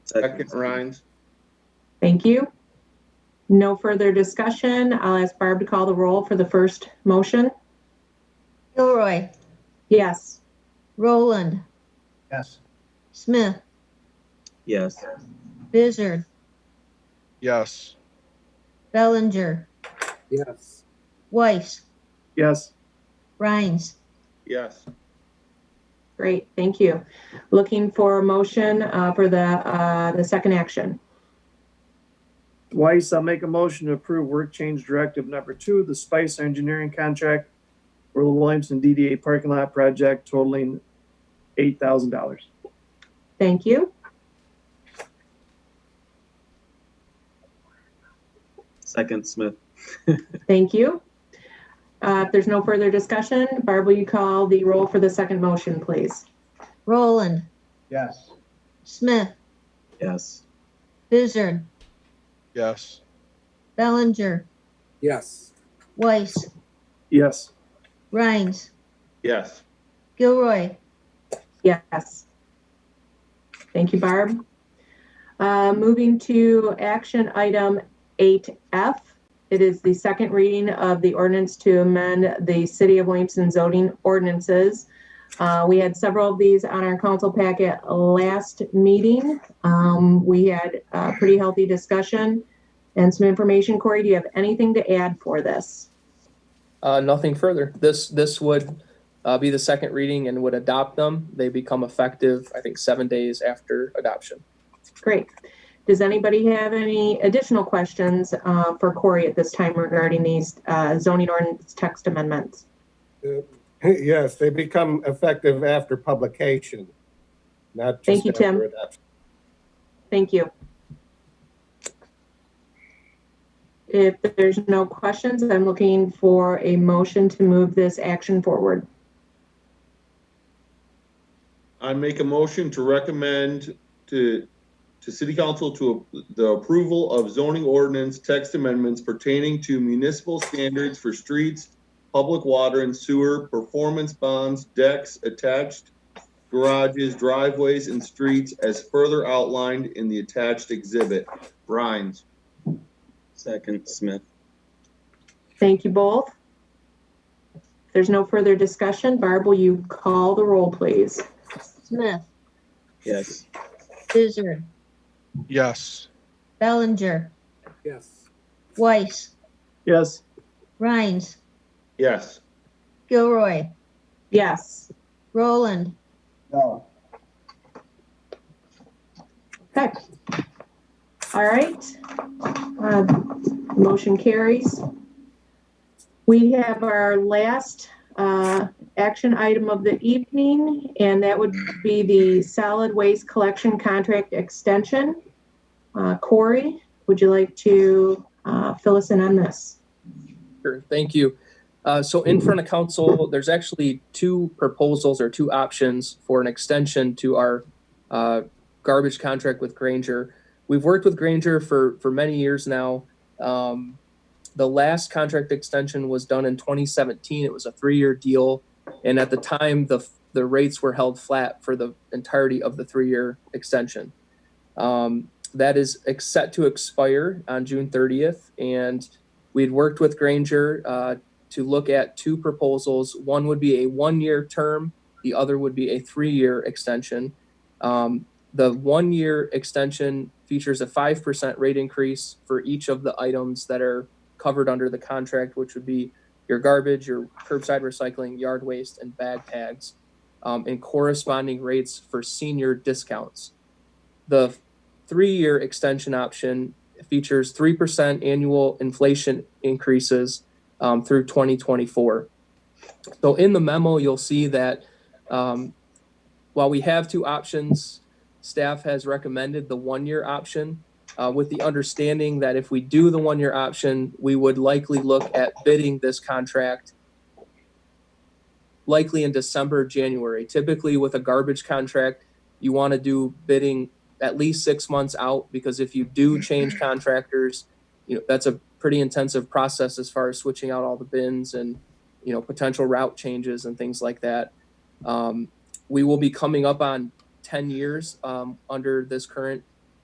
Second, Rhines. Thank you. No further discussion. I'll ask Barb to call the roll for the first motion. Gilroy, Yes. Roland, Yes. Smith, Yes. Bizzard, Yes. Bellinger, Yes. Weiss, Yes. Rhines. Yes. Great, thank you. Looking for a motion uh, for the, uh, the second action. Weiss, I'll make a motion to approve work change directive number two, the Spice Engineering Contract for the Williamson DDA Parking Lot Project totaling eight thousand dollars. Thank you. Second, Smith. Thank you. Uh, If there's no further discussion, Barb, will you call the roll for the second motion, please? Roland, Yes. Smith, Yes. Bizzard, Yes. Bellinger, Yes. Weiss, Yes, Rhines, Yes. Gilroy, Yes. Thank you, Barb. Uh, Moving to action item 8F. It is the second reading of the ordinance to amend the City of Williamson zoning ordinances. Uh, We had several of these on our council packet last meeting. Um, We had a pretty healthy discussion and some information. Corey, do you have anything to add for this? Uh, nothing further. This, this would, uh, be the second reading and would adopt them. They become effective, I think, seven days after adoption. Great. Does anybody have any additional questions uh, for Corey at this time regarding these uh, zoning ordinance text amendments? Yes, they become effective after publication, not Thank just you, Tim. after adoption. Thank you. If there's no questions, I'm looking for a motion to move this action forward. I make a motion to recommend to, to city council to ap- the approval of zoning ordinance text amendments pertaining to municipal standards for streets, public water and sewer, performance bonds, decks, attached garages, driveways, and streets as further outlined in the attached exhibit. Rhines. Second, Smith. Thank you both. If there's no further discussion, Barb, will you call the roll, please? Smith, Yes. Bizzard, Yes. Bellinger, Yes. Weiss, yes, Rhines, Yes. Gilroy, Yes. Roland, No. Okay. All right. Uh, Motion carries. We have our last uh, action item of the evening, and that would be the solid waste collection contract extension. Uh, Corey, would you like to uh, fill us in on this? Sure, thank you. Uh, so in front of council, there's actually two proposals or two options for an extension to our uh, garbage contract with Granger. We've worked with Granger for for many years now. Um, the last contract extension was done in 2017. It was a three-year deal, and at the time, the the rates were held flat for the entirety of the three-year extension. Um, that is ex- set to expire on June 30th, and we had worked with Granger uh, to look at two proposals. One would be a one year term, the other would be a three year extension. Um, the one year extension features a 5% rate increase for each of the items that are covered under the contract, which would be your garbage, your curbside recycling, yard waste, and bag tags, um, and corresponding rates for senior discounts. The three year extension option features 3% annual inflation increases um, through 2024. So in the memo, you'll see that um, while we have two options, staff has recommended the one year option uh, with the understanding that if we do the one year option, we would likely look at bidding this contract likely in December, January. Typically, with a garbage contract, you want to do bidding at least six months out because if you do change contractors, you know that's a pretty intensive process as far as switching out all the bins and you know potential route changes and things like that. Um, we will be coming up on 10 years um, under this current